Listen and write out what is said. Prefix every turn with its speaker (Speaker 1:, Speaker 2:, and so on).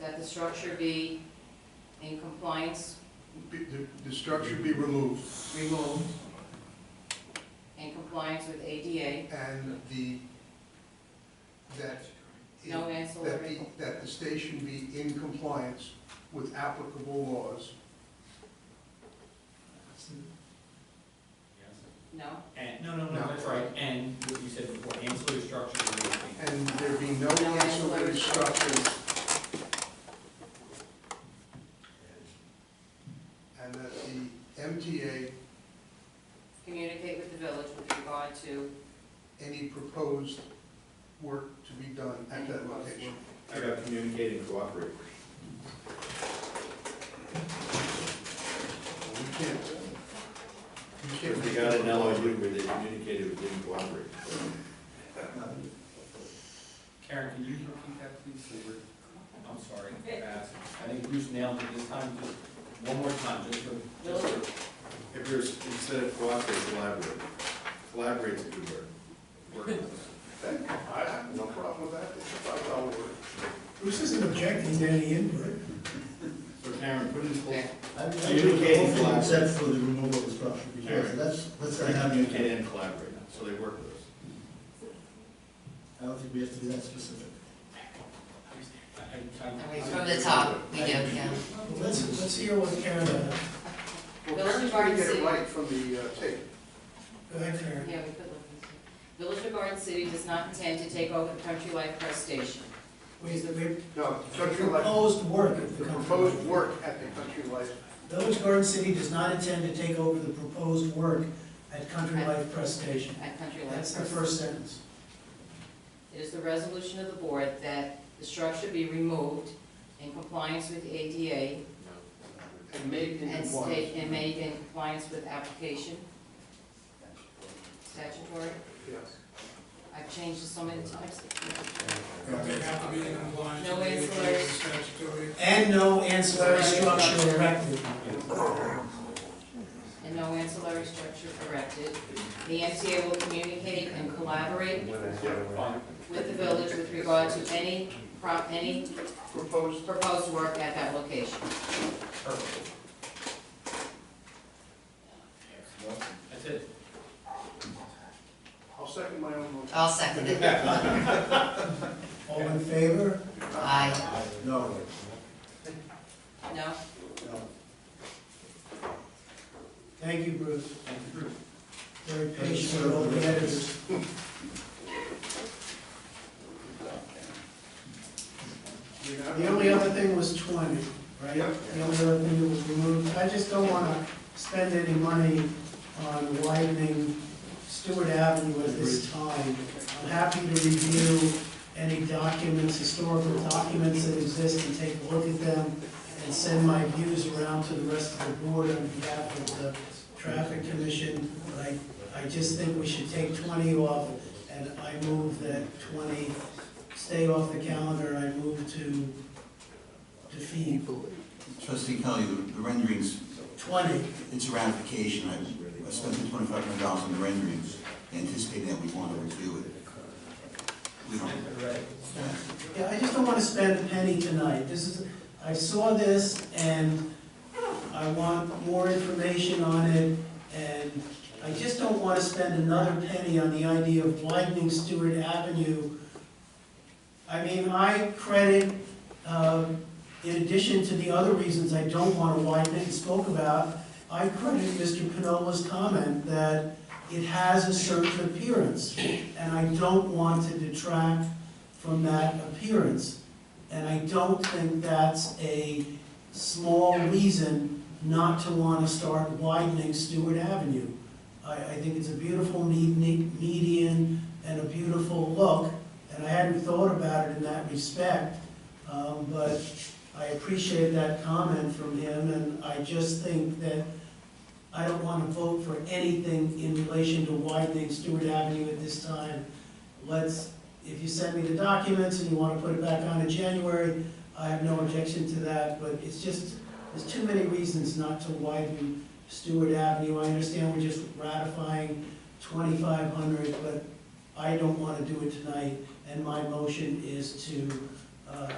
Speaker 1: that the structure be in compliance,
Speaker 2: Be- The, the structure be removed
Speaker 1: removed, in compliance with ADA,
Speaker 2: and the, that. it-
Speaker 1: no
Speaker 2: That the,
Speaker 1: ancillary,
Speaker 2: that the station be in compliance with applicable laws.
Speaker 1: no?
Speaker 3: And, no, no, no,
Speaker 2: No.
Speaker 3: that's right, and what you said before, ancillary structures are moving.
Speaker 2: And there be no
Speaker 1: No
Speaker 2: ancillary
Speaker 1: ancillary
Speaker 2: structures. And that the MTA,
Speaker 1: Communicate with the village with regard to
Speaker 2: any proposed work to be done at that location.
Speaker 4: I got communicate and cooperate.
Speaker 2: We can't, we
Speaker 4: If
Speaker 2: can't.
Speaker 4: we got an LOU where they communicated but didn't cooperate.
Speaker 3: Karen, can you repeat that, please? They were- I'm sorry, fast. I think Bruce nailed it this time, just one more time, just for, just for,
Speaker 4: If you're, instead of cooperate, collaborate. Collaborate's a good word.
Speaker 3: work on it.
Speaker 4: I have no problem with that, it's a five-dollar word.
Speaker 5: Bruce isn't objecting to any input.
Speaker 4: So Karen, put in,
Speaker 1: Okay.
Speaker 6: I'm
Speaker 4: So
Speaker 6: I'm
Speaker 4: you
Speaker 6: doing the
Speaker 4: can't
Speaker 6: whole thing
Speaker 4: collaborate.
Speaker 6: except for the removal of the structure, because
Speaker 4: Alright.
Speaker 6: that's, that's not happening.
Speaker 4: communicate and collaborate, so they work with us.
Speaker 6: I don't think we have to be that specific.
Speaker 3: I- I-
Speaker 7: I
Speaker 3: I-
Speaker 7: mean, From the top, we do, yeah.
Speaker 5: Well, Let's, let's hear what Karen, uh,
Speaker 2: Well, parents can get it right from the uh, tape.
Speaker 5: go ahead, Karen.
Speaker 1: Yeah, we could look into it. Village of Garden City does not intend to take over the Country Life Press Station.
Speaker 5: We, we
Speaker 2: No, Country Life,
Speaker 5: proposed work at
Speaker 2: the
Speaker 5: the
Speaker 2: proposed
Speaker 5: company.
Speaker 2: work at the Country Life
Speaker 5: Village Garden City does not intend to take over the proposed work at Country Life Press Station.
Speaker 1: At Country Life.
Speaker 5: That's the
Speaker 1: Press.
Speaker 5: first sentence.
Speaker 1: It is the resolution of the board that the structure be removed in compliance with ADA
Speaker 2: and made in
Speaker 1: and
Speaker 2: compliance.
Speaker 1: state, and made in compliance with application. Statutory.
Speaker 2: Yes.
Speaker 1: I've changed it so many times.
Speaker 8: No
Speaker 1: No ancillary.
Speaker 8: Statutory.
Speaker 5: And no ancillary structure erected.
Speaker 1: And no ancillary structure erected. The MTA will communicate and collaborate
Speaker 3: Fine.
Speaker 1: with the village with regard to any, pro- any
Speaker 2: Proposed
Speaker 1: proposed work at that location.
Speaker 3: Perfect. That's it.
Speaker 2: I'll second my own motion.
Speaker 7: I'll second it.
Speaker 5: All in favor?
Speaker 7: Aye.
Speaker 6: No.
Speaker 1: No?
Speaker 5: Thank you, Bruce.
Speaker 3: Thank you, Bruce.
Speaker 5: Very patient with all the editors. The only other thing was twenty, right?
Speaker 2: Yep.
Speaker 5: The only other thing that was removed, I just don't wanna spend any money on widening Stewart Avenue at this time. I'm happy to review any documents, historical documents that exist and take a look at them and send my views around to the rest of the board on behalf of the traffic commission. But I, I just think we should take twenty off and I move that twenty stay off the calendar, I move to defeat
Speaker 9: Trustee Kelly, the the renderings,
Speaker 5: twenty.
Speaker 9: it's a ratification, I I spent the twenty-five hundred dollars on the renderings, anticipating that we want to review it. We don't,
Speaker 5: Yeah, I just don't wanna spend a penny tonight, this is, I saw this and I want more information on it, and I just don't wanna spend another penny on the idea of widening Stewart Avenue. I mean, I credit, um, in addition to the other reasons I don't wanna widen it and spoke about, I credit Mr. Pinola's comment that it has a certain appearance, and I don't want to detract from that appearance. And I don't think that's a small reason not to want to start widening Stewart Avenue. I, I think it's a beautiful me- me- median and a beautiful look, and I hadn't thought about it in that respect. Um, but I appreciate that comment from him, and I just think that I don't want to vote for anything in relation to widening Stewart Avenue at this time. Let's if you send me the documents and you want to put it back on in January, I have no objection to that, but it's just, there's too many reasons not to widen Stewart Avenue. I understand we're just ratifying twenty-five hundred, but I don't want to do it tonight, and my motion is to, uh,